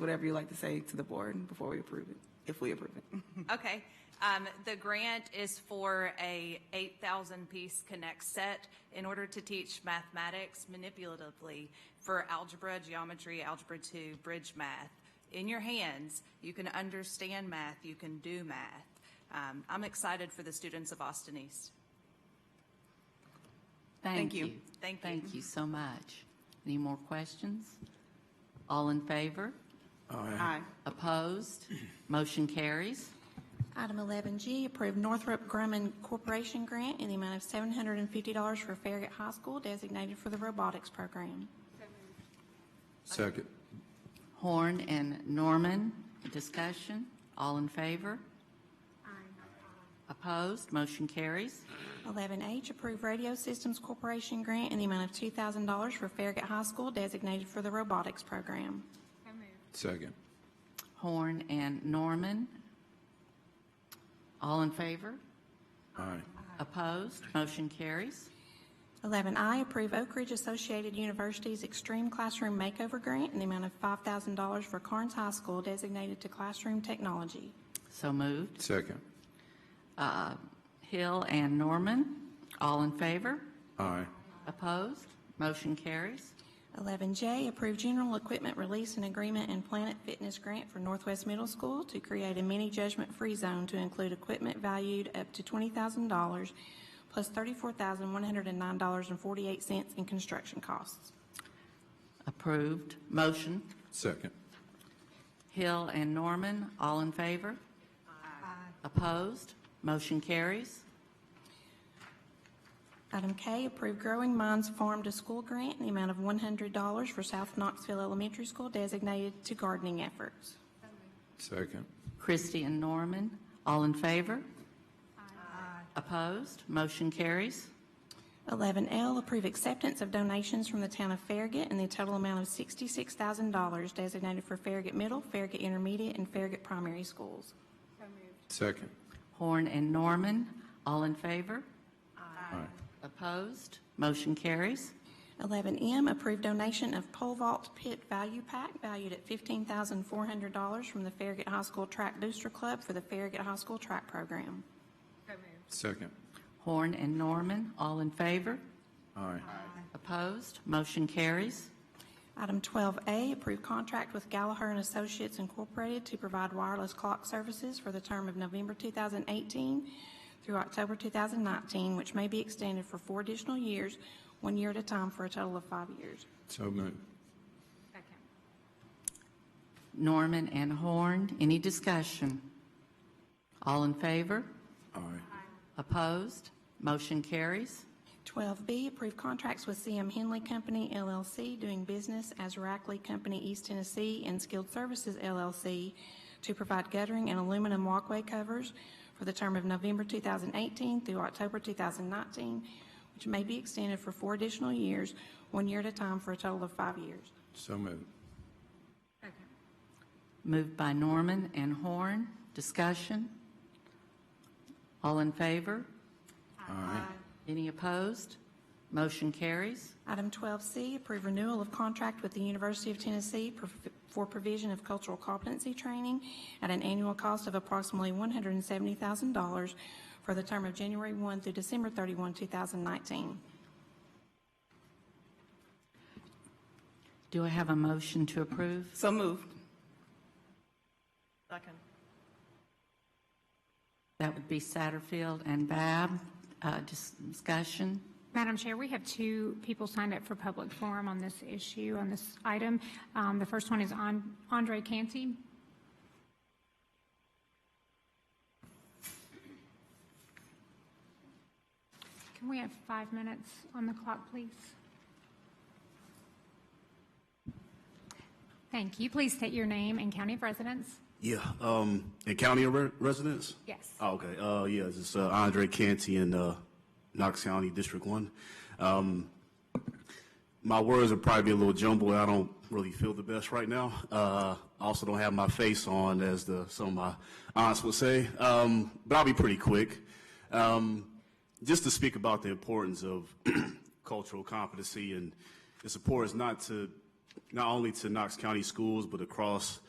whatever you like to say to the board before we approve it, if we approve it. Okay, um, the grant is for a eight thousand piece connect set in order to teach mathematics manipulatively for algebra, geometry, algebra two, bridge math. In your hands, you can understand math, you can do math. Um, I'm excited for the students of Austin East. Thank you. Thank you. Thank you so much. Any more questions? All in favor? Aye. Opposed? Motion carries. Item 11G, approve Northrop Grumman Corporation Grant in the amount of $750 for Farragut High School designated for the robotics program. Second. Horn and Norman, discussion. All in favor? Opposed? Motion carries. 11H, approve Radio Systems Corporation Grant in the amount of $2,000 for Farragut High School designated for the robotics program. Second. Horn and Norman. All in favor? Aye. Opposed? Motion carries. 11I, approve Oak Ridge Associated University's Extreme Classroom Makeover Grant in the amount of $5,000 for Carnes High School designated to classroom technology. So moved. Second. Uh, Hill and Norman, all in favor? Aye. Opposed? Motion carries. 11J, approve general equipment release and agreement and Planet Fitness grant for Northwest Middle School to create a mini judgment-free zone to include equipment valued up to $20,000 plus $34,109.48 in construction costs. Approved. Motion. Second. Hill and Norman, all in favor? Opposed? Motion carries. Item K, approve Growing Minds Farm to School grant in the amount of $100 for South Knoxville Elementary School designated to gardening efforts. Second. Christie and Norman, all in favor? Opposed? Motion carries. 11L, approve acceptance of donations from the town of Farragut in the total amount of $66,000 designated for Farragut Middle, Farragut Intermediate, and Farragut Primary Schools. Second. Horn and Norman, all in favor? Aye. Opposed? Motion carries. 11M, approve donation of pole vault pit value pack valued at $15,400 from the Farragut High School Track Booster Club for the Farragut High School Track Program. Second. Horn and Norman, all in favor? Aye. Opposed? Motion carries. Item 12A, approve contract with Gallagher and Associates Incorporated to provide wireless clock services for the term of November 2018 through October 2019, which may be extended for four additional years, one year at a time, for a total of five years. So moved. Norman and Horn, any discussion? All in favor? Aye. Opposed? Motion carries. 12B, approve contracts with CM Henley Company LLC doing business as Rackley Company East Tennessee and Skilled Services LLC to provide guttering and aluminum walkway covers for the term of November 2018 through October 2019, which may be extended for four additional years, one year at a time, for a total of five years. So moved. Moved by Norman and Horn. Discussion? All in favor? Aye. Any opposed? Motion carries. Item 12C, approve renewal of contract with the University of Tennessee for- for provision of cultural competency training at an annual cost of approximately $170,000 for the term of January 1 through December 31, 2019. Do I have a motion to approve? So moved. That would be Satterfield and Bab. Uh, dis- Discussion? Madam Chair, we have two people signed up for public forum on this issue, on this item. Um, The first one is An- Andre Canty. Can we have five minutes on the clock, please? Thank you. Please state your name and county of residence. Yeah, um, and county re- residents? Yes. Oh, okay, uh, yeah, this is uh, Andre Canty in, uh, Knox County, District One. Um, my words are probably a little jumbled, I don't really feel the best right now. Uh, I also don't have my face on, as the, some of my aunts would say, um, but I'll be pretty quick. Um, just to speak about the importance of cultural competency and its importance not to, not only to Knox County schools, but across